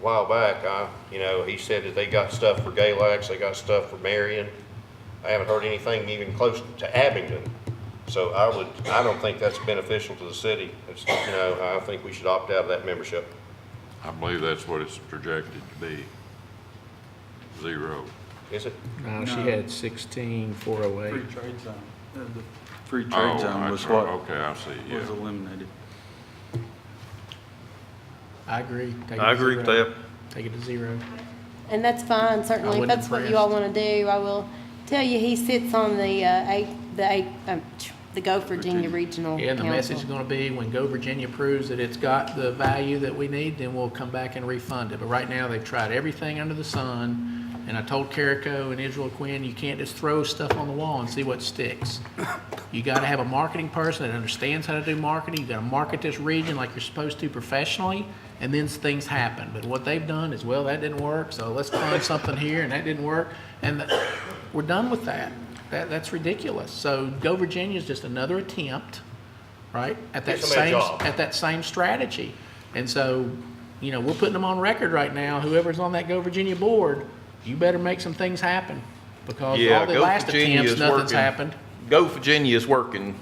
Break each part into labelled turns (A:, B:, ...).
A: a while back, I, you know, he said that they got stuff for Galax, they got stuff for Marion. I haven't heard anything even close to Abingdon. So I would, I don't think that's beneficial to the city. It's, you know, I think we should opt out of that membership.
B: I believe that's what it's projected to be. Zero.
A: Is it?
C: No, Uh, she
D: No.
C: had sixteen, four oh
D: Free
C: eight.
D: trade zone. Uh, the Free
B: Oh,
D: trade zone
B: I-
D: was what
B: Okay, I see, yeah. Uh,
D: was eliminated.
C: I agree. Take it to
E: I agree with
C: zero.
E: that.
C: Take it to zero.
F: And that's fine, certainly, if
C: wasn't
F: that's what you all want
C: impressed.
F: to do, I will tell you, he sits on the, uh, A, the A, um, tch, the Go Virginia Regional
C: Yeah, and the message is
F: Council.
C: gonna be, when Go Virginia proves that it's got the value that we need, then we'll come back and refund it. But right now, they've tried everything under the sun, and I told Carico and Israel Quinn, you can't just throw stuff on the wall and see what sticks. You gotta have a marketing person that understands how to do marketing, you gotta market this region like you're supposed to professionally, and then things happen. But what they've done is, well, that didn't work, so let's find something here, and that didn't work, and th- we're done with that. That, that's ridiculous. So Go Virginia is just another attempt right? At that
A: Give somebody a
C: same,
A: job.
C: at that same strategy. And so, you know, we're putting them on record right now, whoever's on that Go Virginia board, you better make some things happen. Because
E: Yeah,
C: all the
E: Go
C: last
E: Virginia
C: attempts,
E: is
C: nothing's
E: working.
C: happened.
E: Go Virginia is working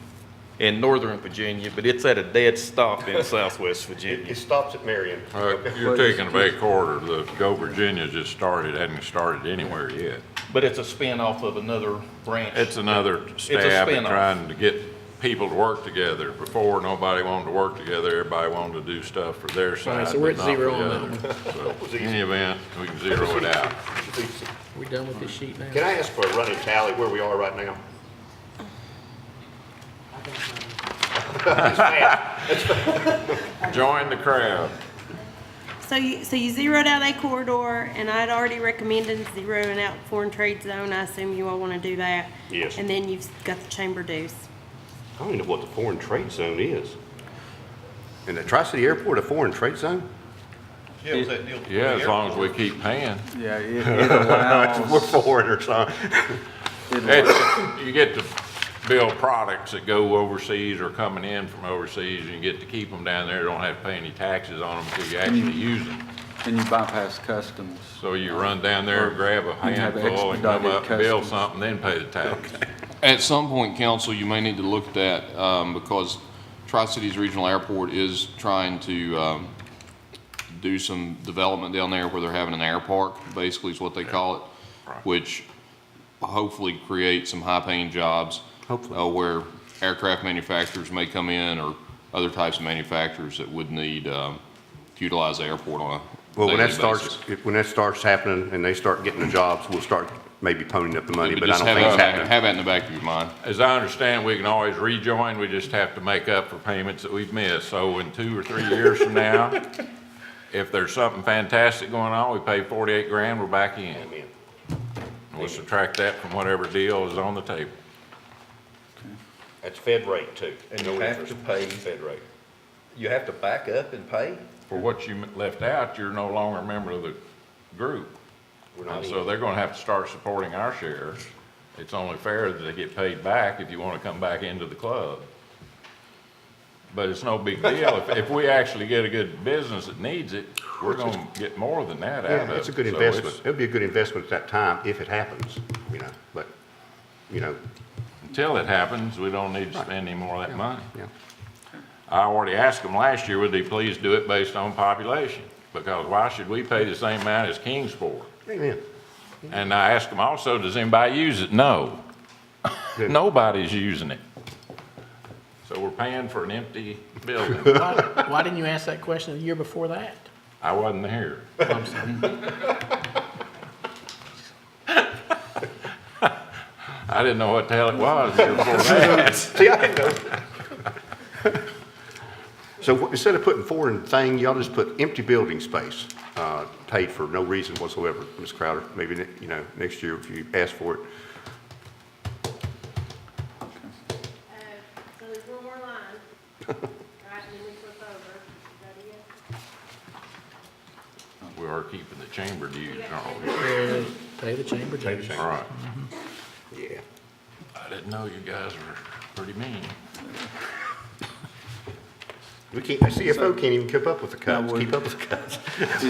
E: in northern Virginia, but it's at a dead stop in southwest
A: It
E: Virginia.
A: it stops at Marion.
B: Uh, You're taking a big quarter. The Go Virginia just started, hadn't started anywhere yet.
E: But it's a spinoff of another branch.
B: It's another stab at
E: spin-off.
B: trying to get people to work together. Before, nobody wanted to work together, everybody wanted to do stuff for their side,
C: so we're
B: but not
C: at
B: for
C: zero
B: the
C: on that
B: other. So, In any event, we can zero it out.
C: We're done with this sheet now.
A: Can I ask for a running tally where we are right now?
B: Join the crowd.
F: So you, so you zeroed out A corridor, and I'd already recommended zeroing out foreign trade zone, I assume you all want to do that.
A: Yes.
F: And then you've got the chamber dues.
A: I don't even know what the foreign trade zone is. In the Tri-City Airport, a foreign trade zone?
G: Yeah, it was that deal?
B: Yeah, as long as we keep paying.
D: Yeah, it it allows,
A: foreigners, huh?
D: it-
B: It's- You get to build products that go overseas or coming in from overseas, and you get to keep them down there, don't have to pay any taxes on them until you actually
D: Mm-hmm.
B: use them.
D: and you bypass customs.
B: So you run down there, grab a
D: You have
B: handful, and come up,
D: expedited
B: build
D: customs.
B: something, then pay the tax.
H: At some point, council, you may need to look at that, um, because Tri-Cities Regional Airport is trying to, um, do some development down there where they're having an air park, basically is what they call it, which hopefully creates some high-paying jobs. Hopefully. Uh, where aircraft manufacturers may come in or other types of manufacturers that would need, um, to utilize the airport on a
A: Well, when that
H: daily
A: starts,
H: basis.
A: if- when that starts happening and they start getting the jobs, we'll start maybe ponying up the money, but I
H: Just
A: don't
H: have
A: think it's
H: that in the back-
A: happening.
H: Have that in the back of your mind.
B: As I understand, we can always rejoin, we just have to make up for payments that we've missed. So in two or three years from now, if there's something fantastic going on, we pay forty-eight grand, we're back in. We'll subtract that from whatever deal is on the table.
A: That's Fed rate too.
G: And
A: No
G: you have
A: interest.
G: to pay-
A: Fed rate.
G: You have to back up and pay?
B: For what you left out, you're no longer a member of the group.
A: We're not
B: And
A: in.
B: so they're gonna have to start supporting our shares. It's only fair that they get paid back if you wanna come back into the club. But it's no big deal. If, if we actually get a good business that needs it, we're gonna get more than that out of
A: Yeah,
B: it.
A: it's a good
B: So
A: investment. It'll be a good investment at that time if it happens, you know, but, you know,
B: Until it happens, we don't need to spend any more of that money.
A: yeah.
B: I already asked them last year, would they please do it based on population? Because why should we pay the same amount as Kingsport?
A: Amen.
B: And I asked them also, does anybody use it? No.
A: Good.
B: Nobody's using it. So we're paying for an empty building.
C: Why, why didn't you ask that question the year before that?
B: I wasn't here.
C: I'm sorry.
B: I didn't know what the hell it was the year before that.
A: See, I didn't know. So wh- instead of putting foreign thing, y'all just put empty building space, uh, paid for no reason whatsoever, Ms. Crowder. Maybe, ne- you know, next year if you ask for it.
F: Uh, So there's one more line, right, and then we flip over, is that it?
B: We are keeping the chamber dues, aren't we?
C: Uh, Pay the chamber dues.
B: All right.
A: Yeah.
B: I didn't know you guys were pretty mean.
A: We can't, the CFO can't even keep up with the cuts,
D: we-
A: keep up with the cuts.